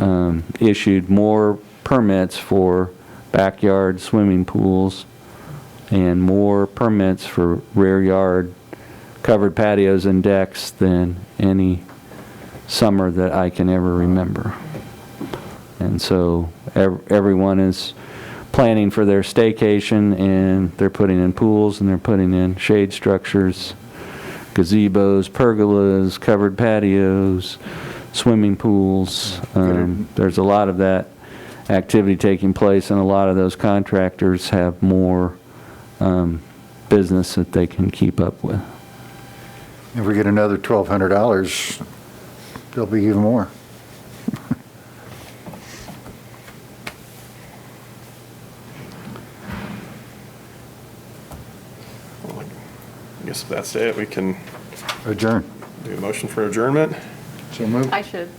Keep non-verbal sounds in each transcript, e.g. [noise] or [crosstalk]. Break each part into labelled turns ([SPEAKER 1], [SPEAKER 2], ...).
[SPEAKER 1] um, issued more permits for backyard swimming pools and more permits for rear yard covered patios and decks than any summer that I can ever remember. And so ev- everyone is planning for their staycation, and they're putting in pools, and they're putting in shade structures, gazebos, pergolas, covered patios, swimming pools. Um, There's a lot of that activity taking place, and a lot of those contractors have more um, business that they can keep up with.
[SPEAKER 2] If we get another $1,200, there'll be even more.
[SPEAKER 3] Well, I guess if that's it, we can
[SPEAKER 2] Adjourn.
[SPEAKER 3] do a motion for adjournment.
[SPEAKER 2] So moved.
[SPEAKER 4] I should.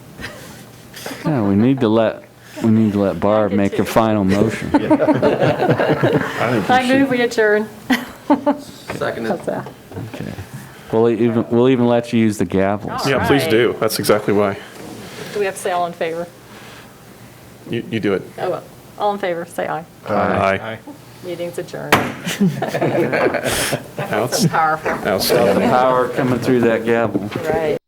[SPEAKER 1] Yeah, we need to let, we need to let Barb make a final
[SPEAKER 4] [laughs]
[SPEAKER 1] motion. [laughs]
[SPEAKER 4] I move we adjourn.
[SPEAKER 5] Seconded.
[SPEAKER 4] How's that?
[SPEAKER 1] Okay. We'll even, we'll even let you use the gavels.
[SPEAKER 3] Yeah, please
[SPEAKER 4] Alright.
[SPEAKER 3] do. That's exactly why.
[SPEAKER 4] Do we have to say all in favor?
[SPEAKER 3] You, you do it.
[SPEAKER 4] Oh, well, all in favor, say aye.
[SPEAKER 3] Aye.
[SPEAKER 4] Meeting's adjourned.
[SPEAKER 3] Outs-
[SPEAKER 4] Powerful.
[SPEAKER 3] Outstanding.
[SPEAKER 1] Power coming through that gavel.
[SPEAKER 4] Right.